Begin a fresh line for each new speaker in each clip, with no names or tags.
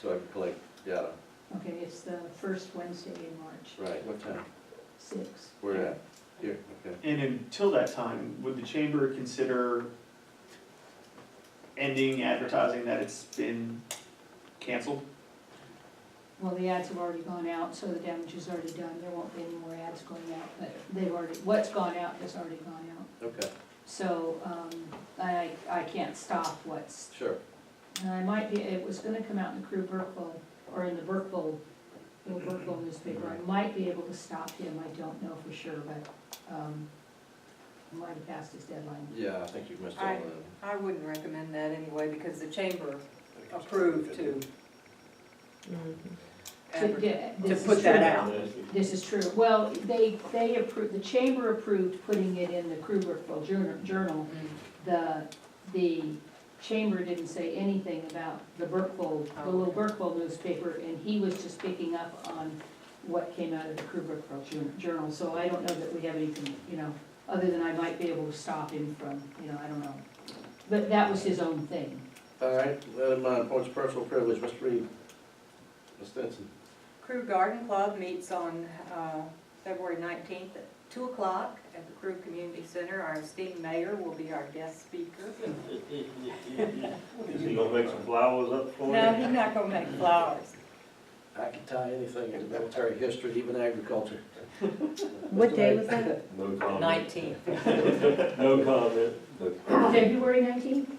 so I can collect data.
Okay, it's the first Wednesday in March,
Right, what time?
six.
Where at? Here, okay.
And until that time, would the chamber consider ending advertising that it's been canceled?
Well, the ads have already gone out, so the damage is already done, there won't be any more ads going out, but they've already, what's gone out has already gone out.
Okay,
So, um, I, I can't stop what's,
sure.
and I might be, it was gonna come out in the Crew Burkeville, or in the Burkeville, little Burkeville newspaper,
Mm-hmm.
I might be able to stop him, I don't know for sure, but, um, I might have passed his deadline.
Yeah, I think you've missed all
I-
of them.
I wouldn't recommend that anyway, because the chamber approved to.
To
adver-
get-
To
this is
put that
true.
out.
This is true. Well, they, they approved, the chamber approved putting it in the Krugerville Journal- Journal. The, the chamber didn't say anything about the Burkeville, the little Burkeville newspaper, and he was just picking up on what came out of the Krugerville Jour- Journal. So I don't know that we have anything, you know, other than I might be able to stop him from, you know, I don't know. But that was his own thing.
All right, uh, my points of personal privilege, Mr. Reed. Ms. Stinson.
Crew Garden Club meets on uh, February nineteenth at two o'clock at the Crew Community Center. Our esteemed mayor will be our guest speaker.
Is he gonna make some flowers up for
No,
you?
he's not gonna make flowers.
I can tie anything into military history, even agriculture.
What day was that?
No comment.
Nineteenth.
No comment.
February nineteenth,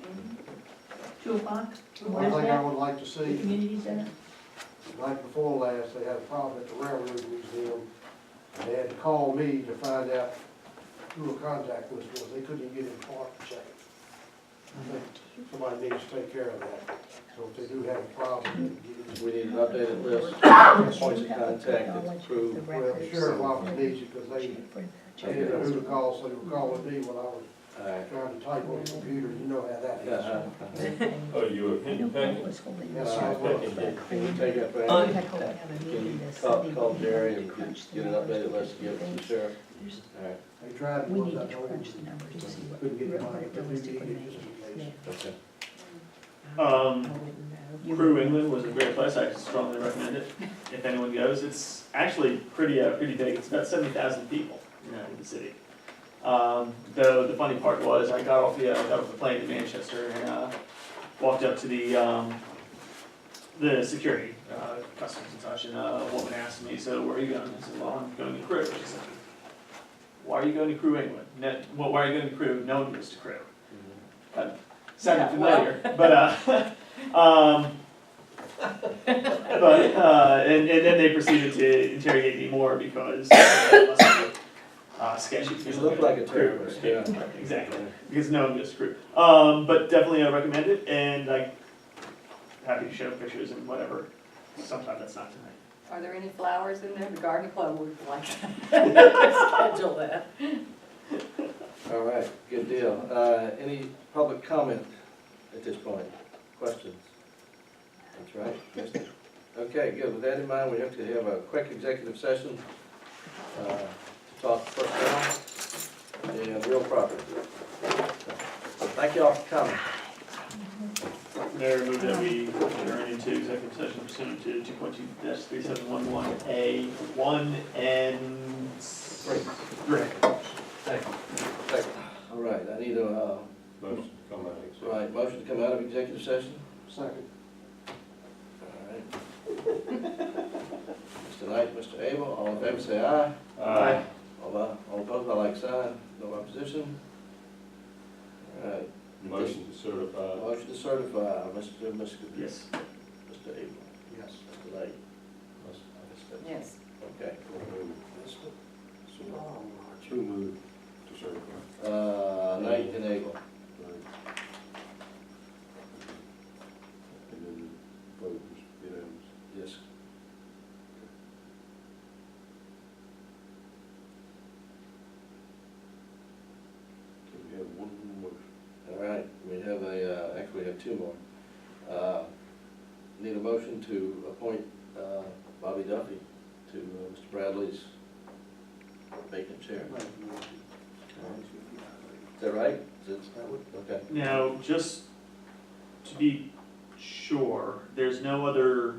two o'clock,
One
where's
thing I
that?
would like to
The
see,
community center?
like before last, they had a problem at the railroad museum. and They had to call me to find out who the contact was, because they couldn't even get in Clark to check it. I think Somebody needs to take care of that. So if they do have a problem, get it.
We need an updated list, points of contact that's approved.
Well, the sheriff's office needs it, because they, they didn't know who to call, so they were calling me when I was
All right.
trying to type on the computer, you know how that is.
Uh-huh.
Oh, you a henny peck?
Yes, I was.
Can you take that back? Can you call, call Jerry and get, get an updated list to give to the sheriff? All right,
They tried to
We
put
need to
that over,
crunch the numbers to see what
couldn't get it,
what it
but they
goes
did
to
get
for
it just in
me.
case.
okay.
I
Um,
wouldn't know.
Crew England was a great place, I strongly recommend it, if anyone goes, it's actually pretty, uh, pretty big, it's about seventy thousand people, you know, in the city. Um, though the funny part was, I got off the, uh, got off the plane in Manchester and, uh, walked up to the, um, the security, uh, customs and such, and uh, a woman asked me, so where are you going? I said, well, I'm going to Crew. She said, why are you going to Crew England? No, well, why are you going to Crew? No one goes to Crew sounded
Yeah, well.
familiar, but, uh, um, but, uh, and, and then they proceeded to interrogate me more because I must have looked, uh, sketchy.
You look like a terrorist, yeah.
Exactly, because no, I'm just screwed. Um, but definitely I recommend it, and like, happy to show pictures and whatever, sometime that's not tonight.
Are there any flowers in there? The garden club would like to schedule that.
All right, good deal. Uh, any public comment at this point? Questions? That's right. Missed it. Okay, good. With that in mind, we have to have a quick executive session, uh, to talk personnel and real property. Thank y'all for coming.
Mayor, move that we adjourn into executive session pursuant to two point two three seven one one A one and
Great.
three.
Thank you. All right, I need a, uh,
Motion to come out of exec.
right, motion to come out of executive session.
Second.
All right. Mr. Knight, Mr. Abel, all in favor, say aye.
Aye.
All tho- all opposed, by like sign, no opposition. All right, uh,
Motion to certify.
motion to certify, Mr. Mis-
Yes.
Mr. Abel,
Yes.
Mr. Knight.
Yes.
Okay.
um,
Who moved to certify?
Uh, Knight and Abel.
And then vote was unanimous.
Yes.
Can we have one more?
All right, we have a, uh, actually we have two more. Uh, Need a motion to appoint uh, Bobby Duffy to uh, Mr. Bradley's vacant chair. Is that right? Is it- Okay.
Now, just to be sure. There's no other